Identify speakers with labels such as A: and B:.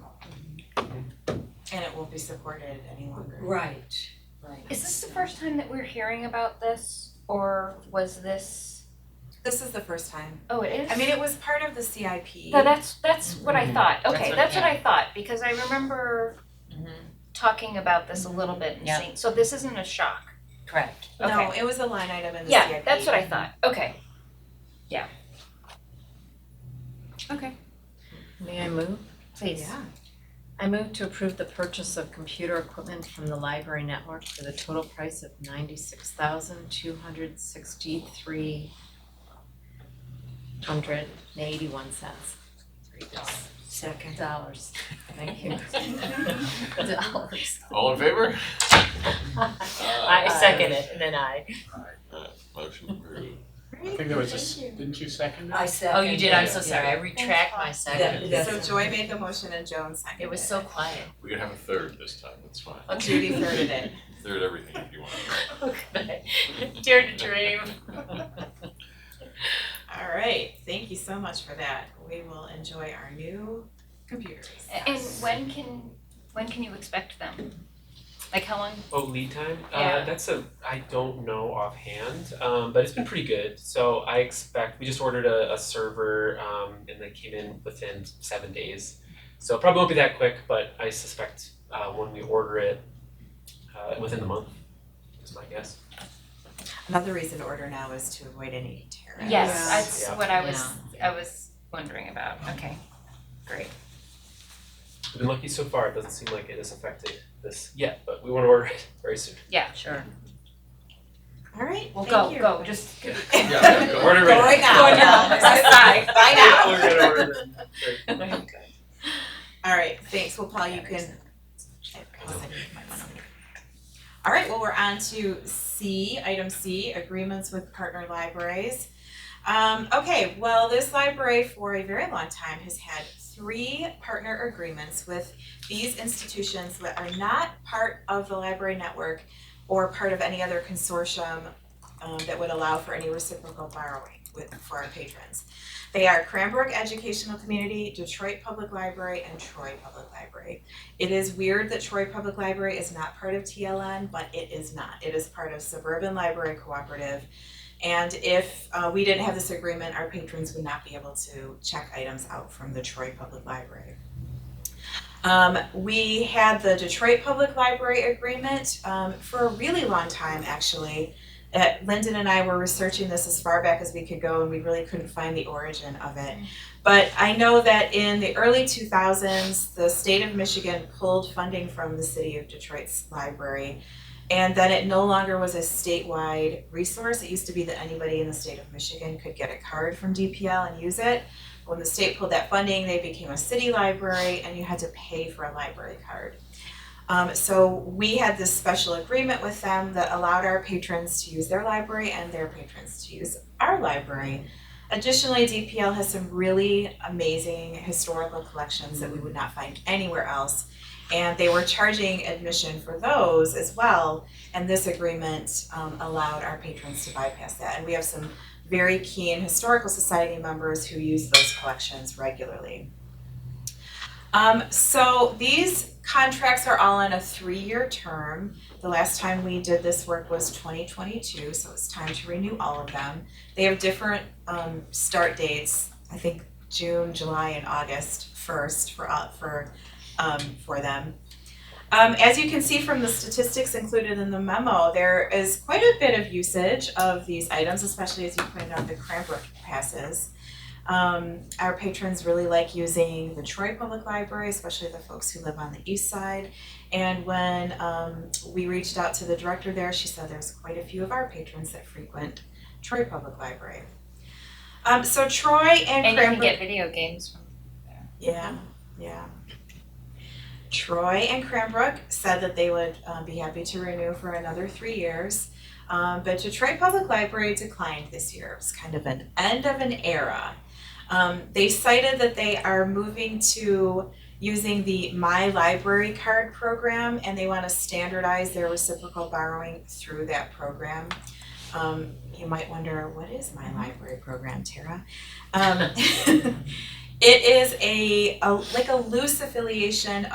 A: and it won't be supported any longer.
B: Right.
A: Right.
C: Is this the first time that we're hearing about this, or was this,
A: This is the first time.
C: oh, it is?
A: I mean, it was part of the CIP.
C: No, that's, that's what I
D: Mhm.
C: thought,
D: That's
C: okay,
D: what-
C: that's what
D: yeah.
C: I thought, because I remember talking about this a little bit and
D: Yeah.
C: seeing, so this isn't a shock.
D: Correct.
A: No,
C: okay.
A: it was a line item in the CIP.
C: Yeah, that's what I thought, okay.
E: May I move?
C: Please.
A: Yeah.
E: I move to approve the purchase of computer equipment from the library network for the total price of ninety-six thousand two hundred sixty-three hundred and eighty-one cents.
A: Second.
E: Dollars, thank you. Dollars.
F: All in favor? Uh,
E: I second it, and then I.
F: Motion approved.
G: I think there was a, s- didn't you second it?
B: I second.
E: Oh, you did, I'm so
B: it.
E: sorry, I retract my
B: That-
E: second.
B: that's-
A: So Joy made the motion and Joan seconded.
E: It was so quiet.
F: We can have a third this time, that's fine.
A: Judy thirded it.
F: Third everything if you want.
E: Okay. Dare to dream.
A: All right, thank you so much for that. We will enjoy our new computers.
C: And when can, when can you expect them? Like how long?
H: Oh, lead time?
C: Yeah.
H: Uh, that's a, I don't know offhand, um, but it's been pretty good. So I expect, we just ordered a, a server, um, and they came in within seven days. So it probably won't be that quick, but I suspect, uh, when we order it, uh, within the month, is my guess.
A: Another reason to order now is to avoid any tariffs.
C: Yes,
E: Yeah.
C: that's
H: Yeah.
C: what I was, I was wondering about, okay, great.
H: We've been lucky so far, it doesn't seem like it has affected this yet, but we wanna order it very soon.
E: Sure.
A: All right,
C: Well,
A: thank
C: go,
A: you.
C: go, just.
F: Yeah, go.
H: Order it.
A: Go right now.
C: Go now.
A: Bye. Bye now.
H: We're gonna order it.
A: All right, thanks. Well, Paul, you can. All right, well, we're on to C, item C, agreements with partner libraries. Um, okay, well, this library for a very long time has had three partner agreements with these institutions that are not part of the library network or part of any other consortium um, that would allow for any reciprocal borrowing with, for our patrons. They are Cranbrook Educational Community, Detroit Public Library, and Troy Public Library. It is weird that Troy Public Library is not part of TLN, but it is not. It is part of Suburban Library Cooperative. And if uh, we didn't have this agreement, our patrons would not be able to check items out from the Troy Public Library. Um, we had the Detroit Public Library agreement um, for a really long time, actually uh, Lyndon and I were researching this as far back as we could go, and we really couldn't find the origin of it. But I know that in the early 2000s, the state of Michigan pulled funding from the city of Detroit's library, and then it no longer was a statewide resource. It used to be that anybody in the state of Michigan could get a card from DPL and use it. When the state pulled that funding, they became a city library, and you had to pay for a library card. Um, so we had this special agreement with them that allowed our patrons to use their library and their patrons to use our library. Additionally, DPL has some really amazing historical collections that we would not find anywhere else. And they were charging admission for those as well, and this agreement um, allowed our patrons to bypass that. And we have some very keen historical society members who use those collections regularly. Um, so these contracts are all on a three-year term. The last time we did this work was twenty twenty-two, so it's time to renew all of them. They have different, um, start dates, I think June, July, and August first for, uh, for, um, for them. Um, as you can see from the statistics included in the memo, there is quite a bit of usage of these items, especially as you pointed out, the Cranbrook passes. Um, our patrons really like using the Troy Public Library, especially the folks who live on the east side. And when um, we reached out to the director there, she said there's quite a few of our patrons that frequent Troy Public Library. Um, so Troy and
C: And you can
A: Cranbrook.
C: get video games from
A: Yeah, yeah. Troy and Cranbrook said that they would uh, be happy to renew for another three years. Um, but Detroit Public Library declined this year. It was kind of an end of an era. Um, they cited that they are moving to using the My Library Card program and they want to standardize their reciprocal borrowing through that program. Um, you might wonder, what is My Library program, Tara? Um, It is a, a like a loose affiliation